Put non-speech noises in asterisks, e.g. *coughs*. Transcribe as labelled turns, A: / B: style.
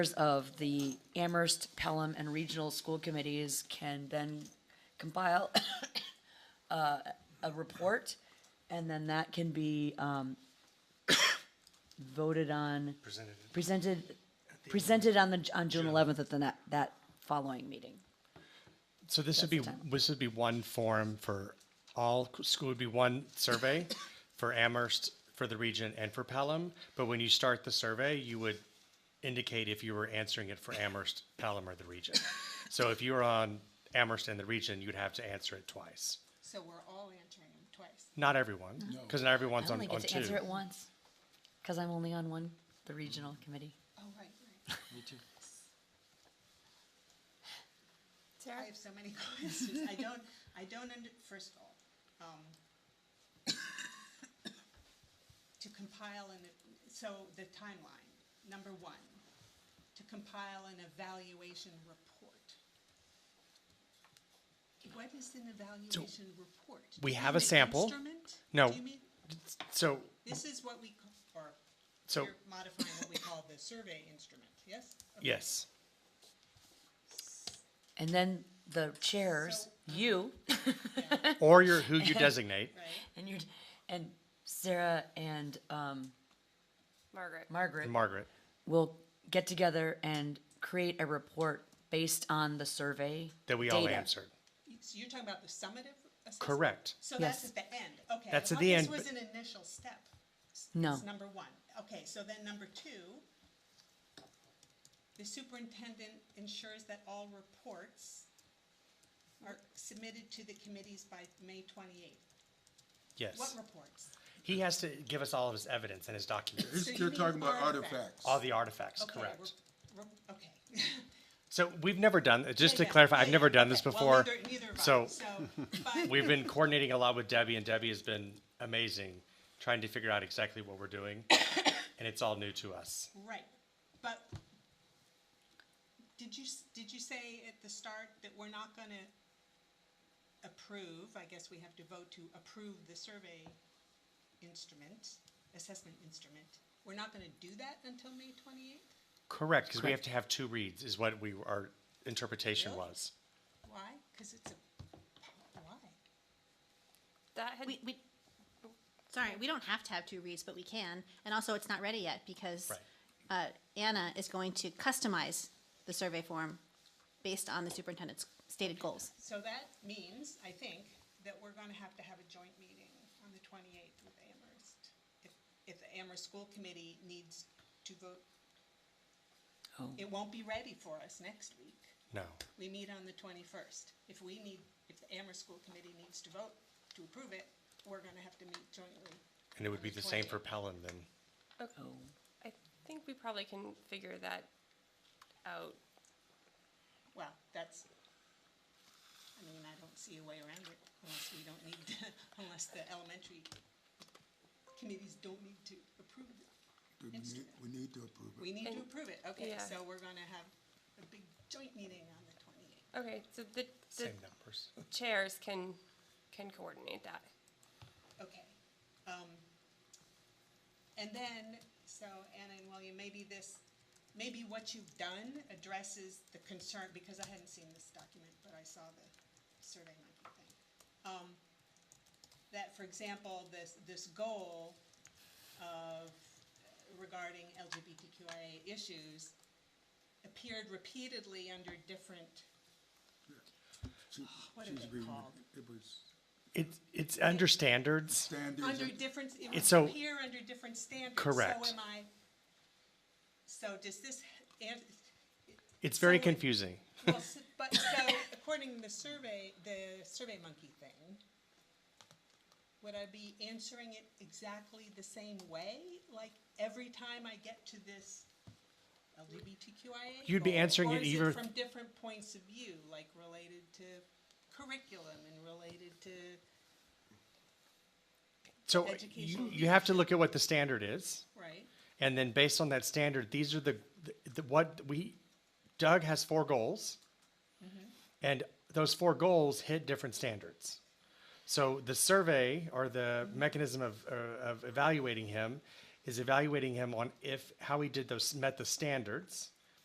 A: of the Amherst, Pelham, and Regional School Committees can then compile *coughs* uh, a report, and then that can be um, *coughs* voted on,
B: presented it.
A: presented, presented on the, on June eleventh at the, na- that following meeting.
B: So this would be, this would be one form for all, school would be one
A: *coughs*
B: survey for Amherst, for the region, and for Pelham. But when you start the survey, you would indicate if you were answering it for Amherst, Pelham, or the region. So if you were on Amherst and the region, you'd have to answer it twice.
C: So we're all answering them twice.
B: Not everyone, because not
A: I
B: everyone's on,
A: only
B: on
A: get to
B: two.
A: answer it once, because I'm only on one, the Regional Committee.
C: Oh, right, right.
D: Me too.
C: I have so many *laughs* questions. I don't, I don't under, first of all, um, *coughs* to compile and, so the timeline, number one, to compile an evaluation report. What is an evaluation report?
B: we
C: Do you
B: have a
C: mean an
B: sample.
C: instrument?
B: No.
C: Do you mean-
B: So,
C: This is what we, ca- or
B: So-
C: you're modifying what we call the survey instrument, yes? Okay.
B: yes.
A: And then the chairs, you,
B: Or your,
A: *laughs*
B: who you designate.
C: Right?
A: and your, and Sarah and um,
E: Margaret.
A: Margaret
B: Margaret,
A: will get together and create a report based on the survey.
B: that we all
A: data.
B: answered.
C: So you're talking about the summative assessment?
B: Correct.
C: So that's
A: Yes.
C: at the end, okay. I
B: That's at
C: thought
B: the end,
C: This was
B: but-
C: an initial step. S-
A: No.
C: It's number one. Okay, so then number two, the superintendent ensures that all reports are submitted to the committees by May twenty-eighth.
B: Yes.
C: What reports?
B: He has to give us all of his evidence and his documents,
C: So you
D: You're
C: mean
D: talking about
C: artifacts.
D: artifacts.
B: all the artifacts,
C: Okay,
B: correct?
C: re- re- Okay. *laughs*
B: So we've never done, just to
C: Yeah, yeah,
B: clarify,
C: yeah,
B: I've never
C: yeah,
B: done this
C: okay. Well,
B: before.
C: neither- neither have I,
B: So
C: *laughs* So, but-
B: *laughs* we've been coordinating a lot with Debbie and Debbie has been amazing, trying to figure out exactly what we're
C: *coughs*
B: doing. And it's all new to us.
C: Right, but did you, s- did you say at the start that we're not gonna approve, I guess we have to vote to approve the survey instrument, assessment instrument? We're not gonna do that until May twenty-eighth?
B: Correct, because we have to have two reads is what we, our interpretation
C: Really?
B: was.
C: Why? Cause it's a, why?
E: That had,
F: We, we, sorry, we don't have to have two reads, but we can. And also, it's not ready yet because
B: Right.
F: uh, Anna is going to customize the survey form based on the superintendent's stated goals.
C: So that means, I think, that we're gonna have to have a joint meeting on the twenty-eighth with Amherst. If, if the Amherst School Committee needs to vote,
A: Oh.
C: it won't be ready for us next week.
B: No.
C: We meet on the twenty-first. If we need, if the Amherst School Committee needs to vote to approve it, we're gonna have to meet jointly.
B: And it would be the same for Pelham then.
E: I think we probably can figure that out.
C: Well, that's, I mean, I don't see a way around it unless we don't need, to- *laughs* unless the elementary committees don't need to approve it.
D: We need- we need to approve it.
C: We need to
E: And-
C: approve it, okay,
E: yeah.
C: so we're gonna have a big joint meeting on the twenty-eighth.
E: Okay, so the, the
B: Same numbers.
E: chairs can, can coordinate that.
C: Okay. Um, and then, so Anna and William, maybe this, maybe what you've done addresses the concern, because I hadn't seen this document, but I saw the survey monkey thing. Um, that, for example, this, this goal of regarding LGBTQIA issues appeared repeatedly under different,
D: She-
C: oh, what
D: she's
C: is it
D: reading
C: called?
D: It was
B: It's, it's under standards.
D: standards.
C: Under
D: and-
C: different, it
B: It's
C: would
B: so-
C: appear under different standards.
B: Correct.
C: So am I, so does this, and,
B: It's very
C: So when-
B: confusing.
C: well, s- but, so according to the survey, the Survey Monkey thing, would I be answering it exactly the same way? Like, every time I get to this LGBTQIA?
B: You'd be
C: goal?
B: answering
C: Or
B: it
C: is
B: either-
C: from different points of view, like related to curriculum and related to?
B: So you,
C: Educational
B: you have to look at what the standard is.
C: Right.
B: And then based on that standard, these are the, the what we, Doug has four goals. And those four goals hit different standards. So the survey or the mechanism of, uh, of evaluating him is evaluating him on if, how he did those, met the standards.